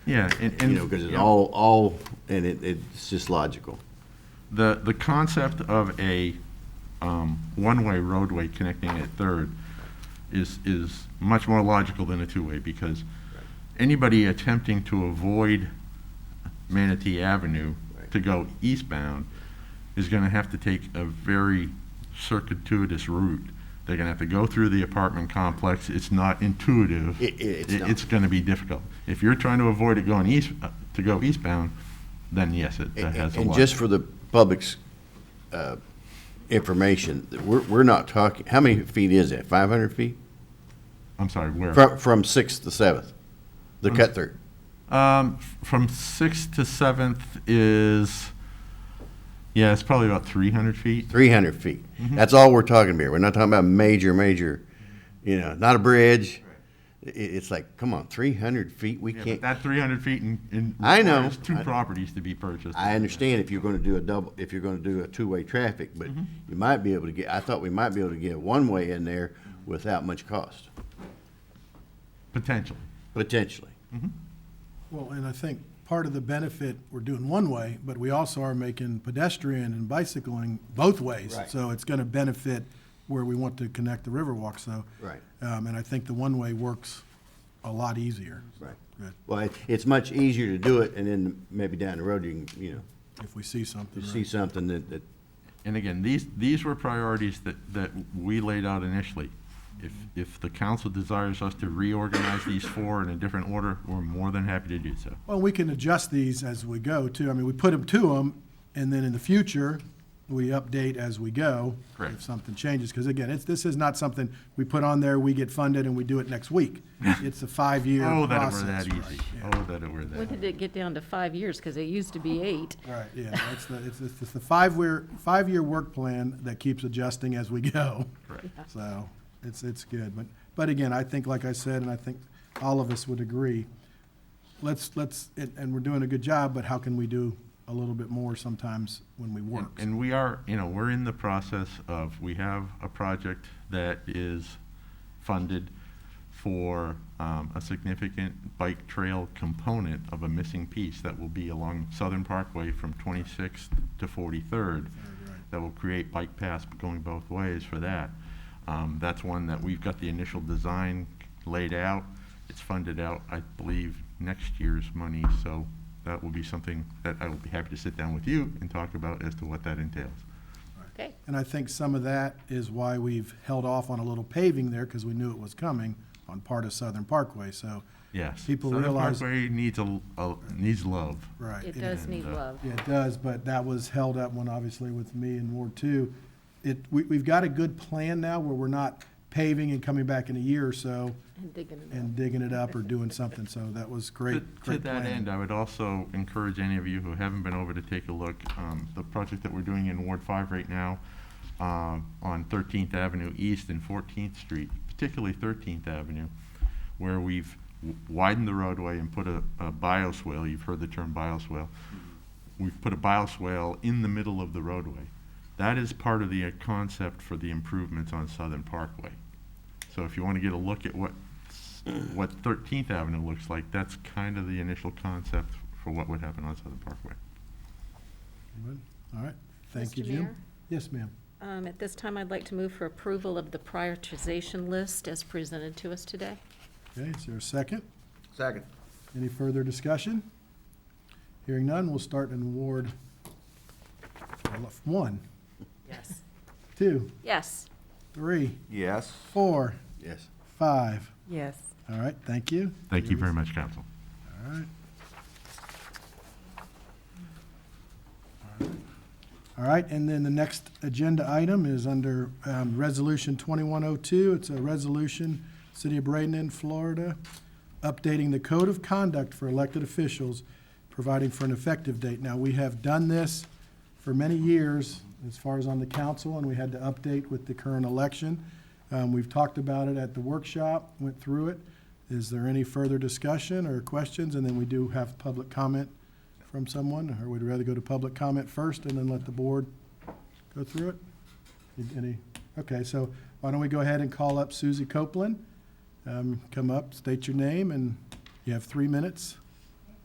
Yeah, and, and. you know, because it's yeah. all, all, and it, it's just logical. The, the concept of a um, one-way roadway connecting at Third is, is much more logical than a two-way, because anybody attempting to avoid Manatee Avenue Right. to go eastbound is going to have to take a very circuitous route. They're going to have to go through the apartment complex. It's not intuitive. It- it- it's It- not. It's going to be difficult. If you're trying to avoid it going east, uh, to go eastbound, then yes, it that has a lot. And just for the public's uh, information, we're, we're not talking, how many feet is it? 500 feet? I'm sorry, where? From, from Sixth to Seventh, the cut through. Um, f- from sixth to seventh is, yeah, it's probably about three hundred feet. 300 feet. Mm-hmm. That's all we're talking about. We're not talking about major, major, you know, not a bridge. I- i- it's like, come on, 300 feet, we Yeah, can't. but that three hundred feet in, in I know. requires two I- properties to be purchased. I understand if you're gonna do a double, if you're gonna do a two-way traffic, but you might be able to get, I thought we might be able to get one-way in there without much cost, Potentially. potentially. Well, and I think part of the benefit, we're doing one way, but we also are making pedestrian and bicycling both ways. Right. So it's gonna benefit where we want to connect the Riverwalk, so. Right. Um, and I think the one-way works a lot easier. Right. Good, Well, it- it's much easier to do it, and then maybe down the road, you can, you know, if we see something. you right. see something that, that, And again, these, these were priorities that, that we laid out initially. If, if the council desires us to reorganize these four in a different order, we're more than happy to do so. Well, we can adjust these as we go too. I mean, we put them to them and then in the future, we update as we go. Correct. If something changes, because again, it's, this is not something we put on there, we get funded and we do it next week. It's a five-year Oh, that it process. were that right, easy. yeah. Oh, that it were When that. did it get down to five years? Because it used to be eight. Right, yeah, that's the, it's, it's it's the five-year, five-year work plan that keeps adjusting as we go. Correct. So, it's, it's good, but, but again, I think, like I said, and I think all of us would agree, let's, let's, and, and we're doing a good job, but how can we do a little bit more sometimes when we work? And we are, you know, we're in the process of, we have a project that is funded for um, a significant bike trail component of a missing piece that will be along Southern Parkway from 26th to 43rd. That will create bike paths going both ways for that. Um, That's one that we've got the initial design laid out. It's funded out, I believe, next year's money, so that will be something that I will be happy to sit down with you and talk about as to what that entails. Okay. And I think some of that is why we've held off on a little paving there, because we knew it was coming on part of Southern Parkway, so. Yes. People Southern realize- Parkway needs a, a- needs love. Right. It and- uh, does need love. Yeah, it does, but that was held up when, obviously, with me in Ward Two. It, we, we've got a good plan now where we're not paving and coming back in a year or so And digging it and digging it up or doing something, so that was To- great, To great that end, planning. I would also encourage any of you who haven't been over to take a look, um, the project that we're doing in Ward Five right now, um, on Thirteenth Avenue East and Fourteenth Street, particularly Thirteenth Avenue, where we've w- widened the roadway and put a, a bioswale, you've heard the term bioswale. We've put a bioswale in the middle of the roadway. That is part of the uh, concept for the improvements on Southern Parkway. So if you want to get a look at what, what Thirteenth Avenue looks like, that's kind of the initial concept for what would happen on Southern Parkway. All right, thank you, Mr. Jim. Mayor? Yes, ma'am. Um, At this time, I'd like to move for approval of the prioritization list as presented to us today. Okay, is there a second? Second. Any further discussion? Hearing none, we'll start in Ward one, Yes. two, Yes. three, Yes. four, Yes. five. Yes. All right, thank you. Thank you very much, Council. All right. All right, and then the next agenda item is under um, Resolution 2102. It's a resolution, City of Bradenton, Florida, updating the code of conduct for elected officials, providing for an effective date. Now, we have done this for many years, as far as on the council, and we had to update with the current election. Um, We've talked about it at the workshop, went through it. Is there any further discussion or questions? And then we do have public comment from someone, or would you rather go to public comment first and then let the board go through it? Did Any, okay, so why don't we go ahead and call up Susie Copeland? Um, Come up, state your name, and you have three minutes.